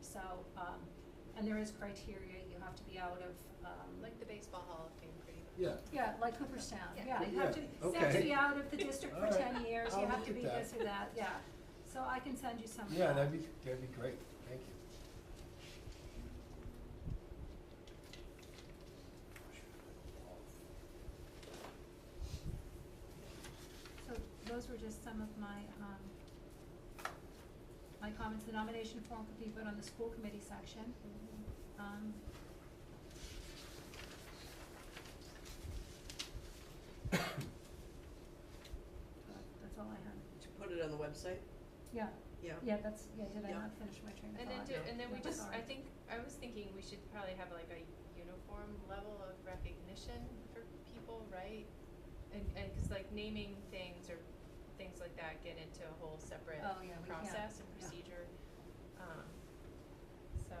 so, um, and there is criteria, you have to be out of, um, like, Like the baseball hall of fame, pretty much. Yeah. yeah, like Cooperstown, Yeah. yeah, you have to, Yeah, you have to okay. be out of the district for All right, ten years, you I'll have look to at be that. this or that, yeah. So I can send you some of that. Yeah, that'd be, that'd be great, thank you. So those were just some of my, um, my comments. The nomination form could be put on the school committee section. Um, but that's all I had. To put it on the website? Yeah, Yeah. yeah, that's, yeah, did I Yeah. not finish my train of And then, thought? do- and then we Yeah, just, sorry. I think, I was thinking we should probably have like a uniform level of recognition for people, right? And, and, cause like naming things or things like that get into a whole separate Oh, yeah, we- yeah, process and yeah. procedure, um, so.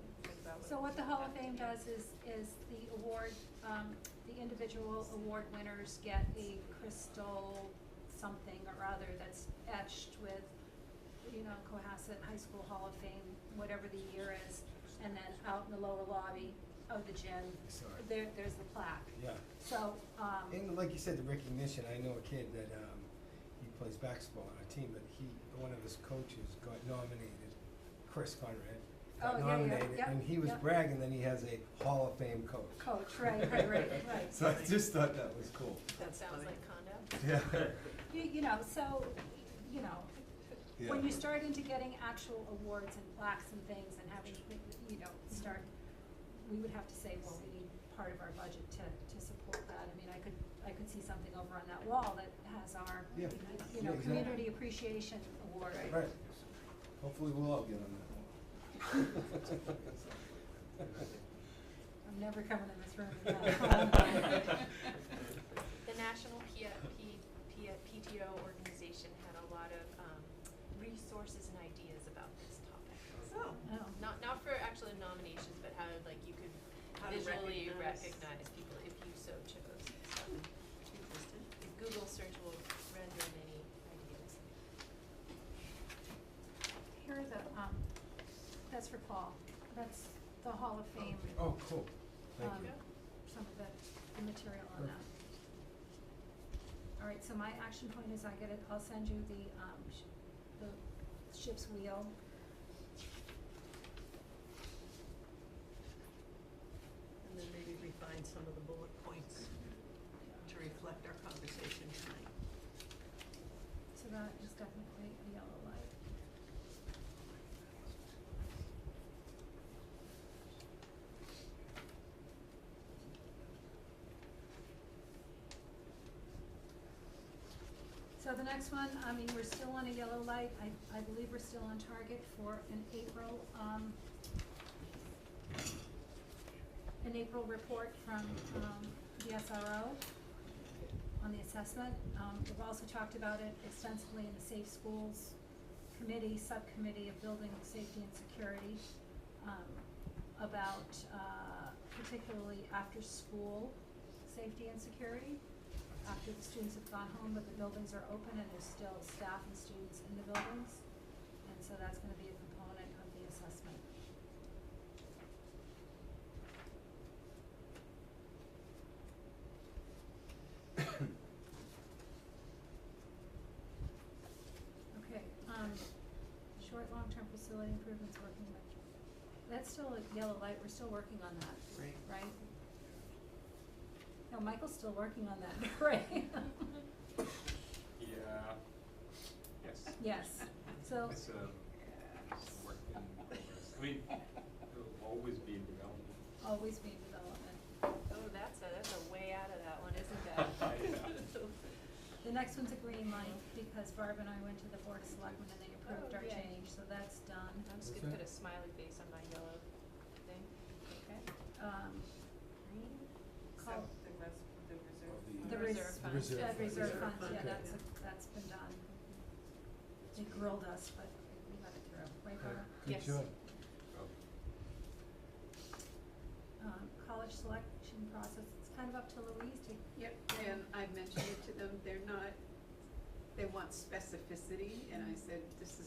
we Can think about what. So what the Hall of Fame Yeah. does is, is the award, um, the individual award winners get a crystal something or other that's etched with, you know, Cohasset High School Hall of Fame, whatever the year is, and then out in the lower lobby of the gym, Sorry. there, there's the plaque. Yeah, So, um, and like you said, the recognition, I know a kid that, um, he plays basketball on our team, but he, one of his coaches got nominated, Chris Conrad, Oh, got yeah, yeah, nominated, yeah, and he was yeah. bragging that he has a Hall of Fame coach. coach, right, right, right, right. So I just thought that was cool, That That's sounds funny. like condo. yeah. You, you know, so, you know, when Yeah. you start into getting actual awards and plaques and things and having, you know, start, we would have to say, well, we need part of our budget to, to support that. I mean, I could, I could see something over on that wall that has our, Yeah. you know, Yeah, exactly. community appreciation award. Right, hopefully we'll all get on that one. I'm never coming in this room without that. The National P- uh, P- P- PTO organization had a lot of um, resources and ideas about this topic. um, Oh. Oh. Not not for actual nominations, but how like you could How to visually recognize. people if you so chose. So the Google search will render many ideas. Here are the, um, that's for Paul. That's the Hall of Fame, Oh, cool, thank Um, you. some of the, the material on that. All right, so my action point is I get it, I'll send you the, um, sh- the ship's wheel. And then maybe refine some of the bullet points to reflect our conversation tonight. So that is definitely a yellow light. So the next one, I mean, we're still on a yellow light, I, I believe we're still on target for an April, um, an April report from, um, the SRO on the assessment. Um, we've also talked about it extensively in the Safe Schools Committee, Subcommittee of Building Safety and Security, um, about, uh, particularly after-school safety and security. After the students have gone home, but the buildings are open and there's still staff and students in the buildings. And so that's gonna be a component of the assessment. Okay, um, short, long-term facility improvements working with, that's still a yellow light, we're still working on that, Right. right? No, Michael's still working on that, right? Yeah. Yes. Yes, so, It's a, it's a work in progress. I mean, it'll always be in development. always being development. Oh, that's a that's a way out of that one, isn't it? The next one's a green light, because Barb and I went to the Board of Selectmen and they approved Oh, our yay. change, so that's done. I'm just gonna put a smiley face on my yellow thing. Okay, um, green, call, the The res- reserve uh, fund. reserve reserve fund. fund, Reserve yeah, fund, that's, yeah. a- that's been done. They grilled us, but we let it through, right, Good- Barb? Yes. Good job. um, college selection process, it's kind of up to Louise to, Yep, and I mentioned it to them, they're not, they want specificity, and I said, this is